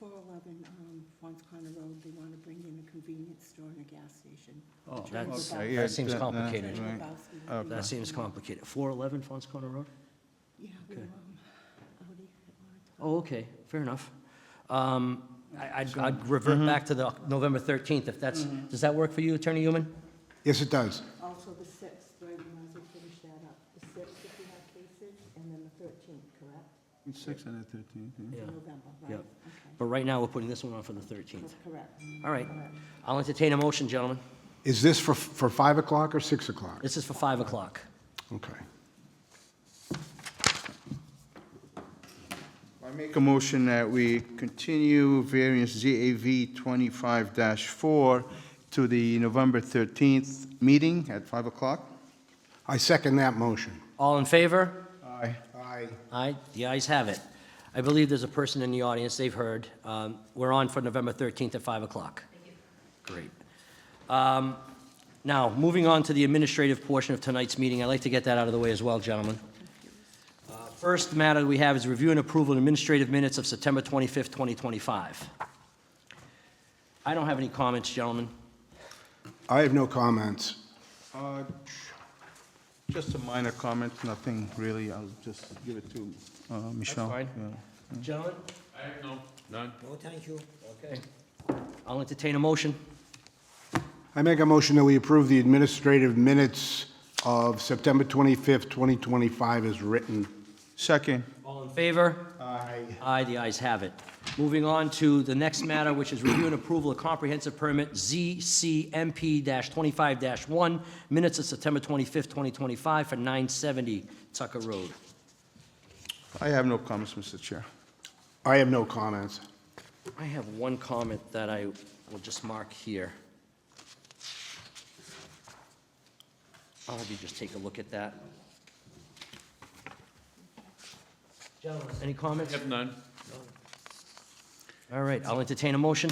411 um, Fons Connor Road, they want to bring in a convenience store and a gas station. Oh, that's- okay, that yeah, seems that- that- complicated. right. Lebowski. That seems complicated. 411 Fons Corner Road? Yeah, we were Okay. um, Audi at one time. Oh, okay, fair enough. Um, I- I'd I'd revert back to the November 13th, if that's, does that work for you, Attorney Human? Yes, it does. Oh. Also the 6th, right, we might as well finish that up. The 6th if we have cases, and then the 13th, correct? Six and the 13th, Yeah. In November, right? Yep. Okay, But right now, we're putting this one on for the 13th. correct. All right. I'll entertain a motion, gentlemen. Is this for, for 5 o'clock or 6 o'clock? This is for 5 o'clock. Okay. I make a motion that we continue variance ZAV 25-4 to the November 13th meeting at 5 o'clock. I second that motion. All in favor? Aye. Aye. Aye, the ayes have it. I believe there's a person in the audience, they've heard. Um, We're on for November 13th at 5 o'clock. Great. Um, Now, moving on to the administrative portion of tonight's meeting, I'd like to get that out of the way as well, gentlemen. Uh, First matter we have is review and approval of administrative minutes of September 25th, 2025. I don't have any comments, gentlemen. I have no comments. Uh, Just a minor comment, nothing really, I'll just give it to uh, Michelle. fine. Yeah. Gentlemen? I have no, none. No, thank you. Okay. I'll entertain a motion. I make a motion that we approve the administrative minutes of September 25th, 2025 as written. Second. All in favor? Aye. Aye, the ayes have it. Moving on to the next matter, which is review and approval of comprehensive permit ZCMP-25-1, minutes of September 25th, 2025, for 970 Tucker Road. I have no comments, Mr. Chair. I have no comments. I have one comment that I will just mark here. I'll have you just take a look at that. Gentlemen, any I comments? have none. All right, I'll entertain a motion.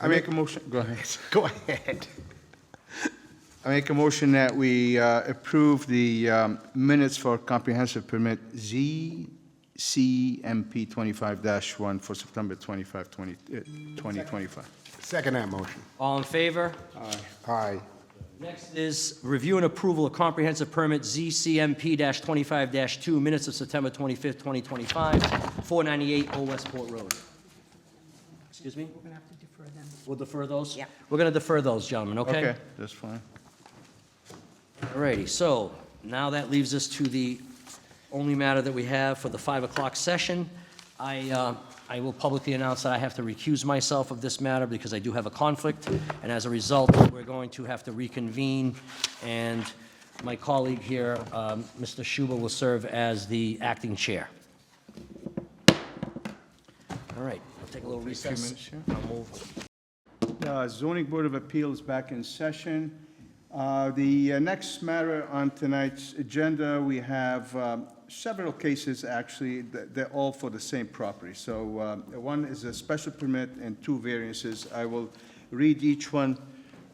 I make a motion, go ahead. Go ahead. I make a motion that we uh, approve the um, minutes for comprehensive permit ZCMP 25-1 for September 25, 20 uh, 2025. Second that motion. All in favor? Aye. Next is review and approval of comprehensive permit ZCMP-25-2, minutes of September 25th, 2025, 498 Old Westport Road. Excuse me? We're going to have to defer them. We'll defer those? Yeah. We're going to defer those, gentlemen, okay? Okay, that's fine. All righty, so now that leaves us to the only matter that we have for the 5 o'clock session. I, uh, I will publicly announce that I have to recuse myself of this matter because I do have a conflict, and as a result, we're going to have to reconvene, and my colleague here, um, Mr. Schuba, will serve as the acting chair. All right, I'll take a little few recess. minutes here. I'll move. The uh, zoning board of appeals back in session. Uh, The uh, next matter on tonight's agenda, we have um, several cases, actually, th- they're all for the same property. So um, one is a special permit and two variances. I will read each one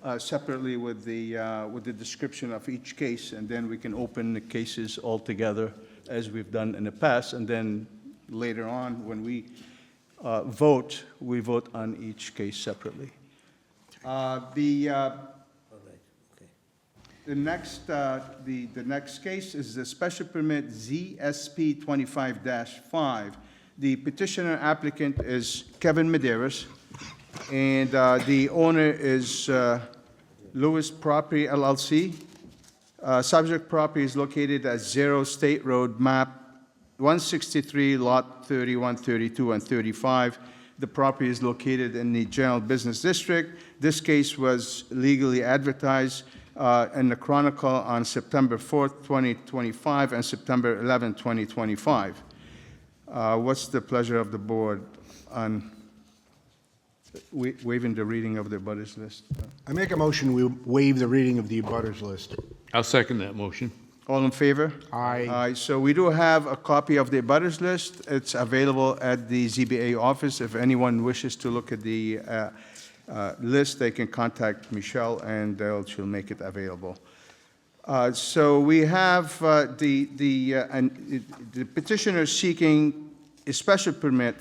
uh, separately with the, uh, with the description of each case, and then we can open the cases all together as we've done in the past, and then later on, when we uh, vote, we vote on each case separately. Uh, The, uh, the next, uh, the, the next case is the special permit ZSP 25-5. The petitioner applicant is Kevin Maderas, and uh, the owner is uh, Lewis Property LLC. Uh, Subject property is located at 0 State Road, map 163, Lot 31, 32, and 35. The property is located in the General Business District. This case was legally advertised uh, in the Chronicle on September 4th, 2025, and September 11th, 2025. Uh, What's the pleasure of the board on wa- waiving the reading of the butters list? I make a motion, we waive the reading of the abutters list. I'll second that motion. All in favor? Aye. Aye, so we do have a copy of the abutters list. It's available at the ZBA office. If anyone wishes to look at the uh, uh, list, they can contact Michelle, and they'll- she'll make it available. Uh, So we have uh, the the uh, and it- the petitioner seeking a special permit